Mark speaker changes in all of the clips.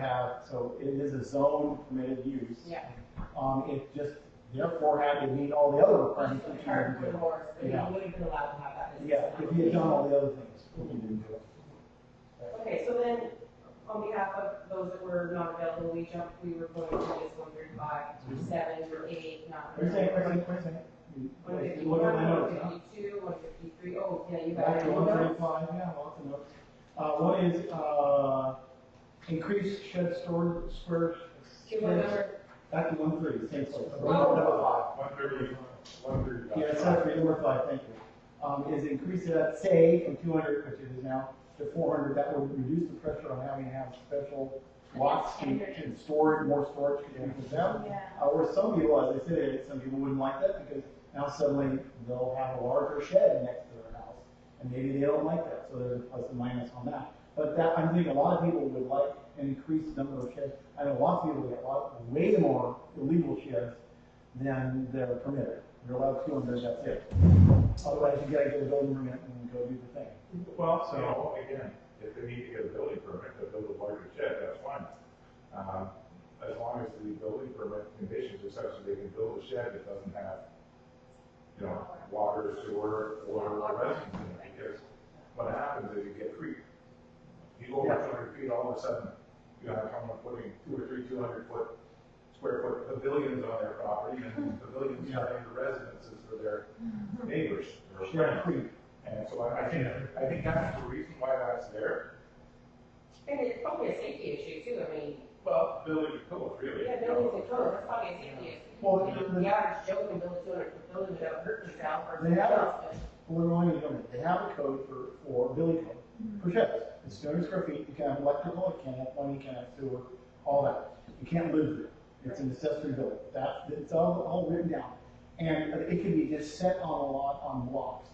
Speaker 1: have, so it is a zone permitted use.
Speaker 2: Yeah.
Speaker 1: Um, it just therefore had to meet all the other requirements
Speaker 2: Just
Speaker 1: that
Speaker 2: like
Speaker 1: you had
Speaker 2: our
Speaker 1: to do.
Speaker 2: doors, but you
Speaker 1: Yeah.
Speaker 2: wouldn't have been allowed to have that business.
Speaker 1: Yeah, if you had done all the other things, but you didn't do it.
Speaker 2: Okay, so then, on behalf of those that were not available, we jumped, we were going to just one through five, through seven, through eight, not.
Speaker 1: Wait a second, wait a second, wait a second. You-
Speaker 2: One
Speaker 1: you
Speaker 2: fifty-one,
Speaker 1: Look at my
Speaker 2: one
Speaker 1: notes, huh?
Speaker 2: fifty-two, one fifty-three, oh, yeah, you got
Speaker 1: Back
Speaker 2: it.
Speaker 1: to one thirty-five, yeah, lots of notes. Uh, what is, uh, increased shed storage, square?
Speaker 2: Can you remember,
Speaker 1: Back to one thirty, same place.
Speaker 2: Oh.
Speaker 1: Number five.
Speaker 3: One thirty, one thirty-five.
Speaker 1: Yeah, sorry for number five, thank you. Um, is increase that, say, from two hundred, which it is now, to four hundred, that would reduce the pressure on having to have special lots and, and storage, more storage for people down.
Speaker 4: Yeah.
Speaker 1: Uh, or some people, as I said, some people wouldn't like that because now suddenly they'll have a larger shed next to their house. And maybe they don't like that, so there's a plus and minus on that. But that, I think a lot of people would like an increased number of sheds. I know lots of people get a lot, way more illegal sheds than they're permitted. You're allowed two and then that's it. Otherwise, you gotta get a building permit and go do the thing.
Speaker 3: Well, so, again, if they need to get a building permit to build a larger shed, that's fine. Um, as long as the building permit conditions are such that they can build a shed that doesn't have, you know, water, sewer, or residence in it, because what happens is you get creep. You go over two hundred feet, all of a sudden, you have someone putting two or three two hundred foot, square foot pavilions on their property, and pavilions
Speaker 1: Yeah.
Speaker 3: turn into residences for their neighbors or
Speaker 1: Shed
Speaker 3: friends.
Speaker 1: creep.
Speaker 3: And so I, I think, I think that's the reason why that's there.
Speaker 2: and it's probably a safety issue too, I mean,
Speaker 3: Well, building a code, really.
Speaker 2: yeah, buildings and codes, that's probably a safety issue.
Speaker 1: Well,
Speaker 2: You know,
Speaker 1: the-
Speaker 2: The average Joe can build a two hundred foot building without hurting himself or.
Speaker 1: They have-
Speaker 2: someone else,
Speaker 1: Well, they're only doing it. They have a code for, for building code, for sheds. It's two hundred square feet, you can have electrical, you can have plumbing, you can have sewer, all that. You can't live there. It's an accessory building. That's, it's all, all written down. And it can be just set on a lot, on blocks.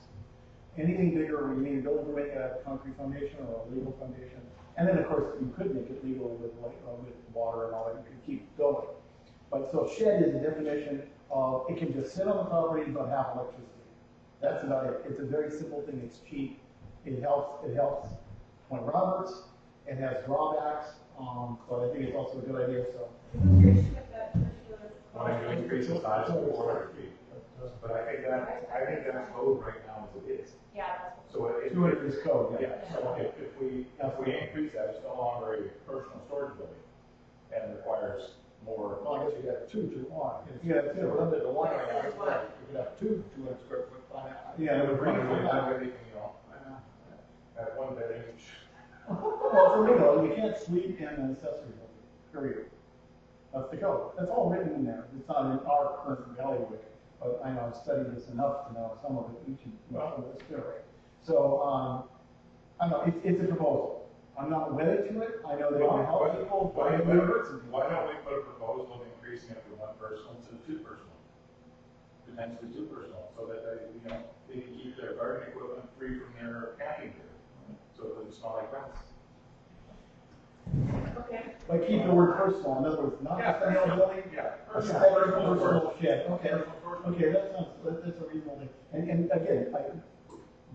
Speaker 1: Anything bigger, you need a building permit, you have a concrete foundation or a legal foundation. And then, of course, you could make it legal with, like, uh, with water and all that, you could keep going. But so shed is a definition of, it can just sit on the property but have electricity. That's about it. It's a very simple thing. It's cheap. It helps. It helps Point Roberts. It has drawbacks, um, but I think it's also a good idea. So
Speaker 4: Who's your issue with that particular?
Speaker 3: Want to increase the size to four hundred feet. But I think that, I think that code right now is it is.
Speaker 4: Yeah, that's what.
Speaker 3: So it. it-
Speaker 1: two hundred is code. Yeah.
Speaker 3: Yeah, so if, if we, if we increase that, it's no longer a personal storage building and requires more.
Speaker 1: Well, I guess you got two to one. If you have two, limit it to one. I guess, right. You could have two two hundred square foot. by now. Yeah,
Speaker 3: And
Speaker 1: it
Speaker 3: the
Speaker 1: would bring
Speaker 3: brand
Speaker 1: it
Speaker 3: would have
Speaker 1: back.
Speaker 3: everything, you know, at one bed each.
Speaker 1: Well, for legal, you can't sleep in an accessory building. Period. That's the code. That's all written in there. It's not in our current bailiwick, but I know I've studied this enough to know some of it. Each and well, of it's good. So, um, I don't know, it's, it's a proposal. I'm not wedded to it. I know they're gonna help people, but
Speaker 3: Why
Speaker 1: I
Speaker 3: don't
Speaker 1: know
Speaker 3: we,
Speaker 1: they're hurting people.
Speaker 3: why don't we put a proposal of increasing it from one personal to two personal? Potentially two personal, so that they, you know, they can keep their garden equipment free from their camping gear. So it doesn't smell like rats.
Speaker 2: Okay,
Speaker 1: But keep the word personal, in other words, not
Speaker 3: Yeah,
Speaker 1: personal
Speaker 3: personal.
Speaker 1: building.
Speaker 3: Yeah.
Speaker 1: It's a
Speaker 3: Personal,
Speaker 1: personal,
Speaker 3: personal, personal.
Speaker 1: personal shed, okay.
Speaker 3: Personal, personal.
Speaker 1: Okay, that sounds, that, that's a reasonable thing. And, and again, I,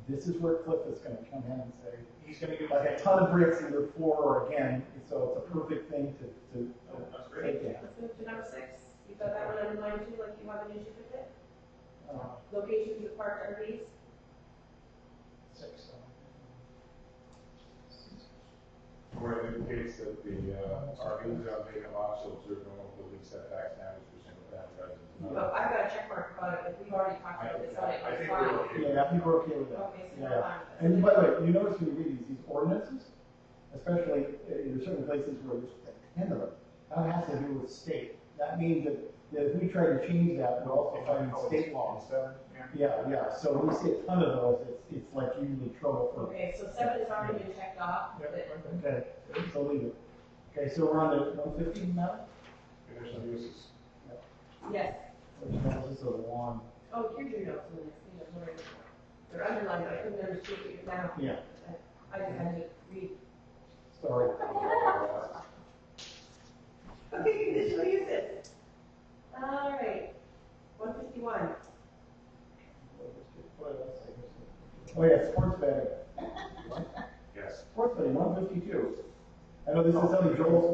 Speaker 1: this is where Cliff is gonna come in and say,
Speaker 3: He's gonna give us.
Speaker 1: like a ton of bricks either for or again, so it's a perfect thing to, to
Speaker 3: Oh, That's
Speaker 1: to
Speaker 3: great.
Speaker 1: take down.
Speaker 2: let's move to number six, you got that one underlined too, like you have an issue with it?
Speaker 1: Uh,
Speaker 2: Locations of parked RVs,
Speaker 1: six,
Speaker 3: Where it indicates that the, uh, RVs are vacant lots, so observe normal building setbacks, damage for single family residence.
Speaker 2: but I've got a check mark about it, but we've already talked about this on it,
Speaker 3: I
Speaker 2: it's
Speaker 3: think we're
Speaker 2: fine.
Speaker 3: okay.
Speaker 1: Yeah, people are okay with that.
Speaker 2: Okay, so
Speaker 1: Yeah.
Speaker 2: we're fine.
Speaker 1: And by the way, you notice when you read these, these ordinances, especially uh, in certain places where there's a ten of them, that has to do with state. That means that, that if we try to change that, we're also finding state laws. Yeah, yeah, so when we see a ton of those, it's, it's like usually trouble for,
Speaker 2: Okay, so seven has already been checked off, but
Speaker 1: okay, so leave it. Okay, so we're on to one fifteen now?
Speaker 3: Conditional uses.
Speaker 2: yes,
Speaker 1: Which is just a long,
Speaker 2: oh, here's your notes on this, you know, sorry. They're underlined, but I couldn't understand it now,
Speaker 1: yeah,
Speaker 2: I just had to read.
Speaker 1: sorry.
Speaker 2: Okay, conditional uses. All right, one fifty-one,
Speaker 1: Oh yeah, sports betting.
Speaker 3: Yes.
Speaker 1: Sports betting, one fifty-two. I know this is something Joel's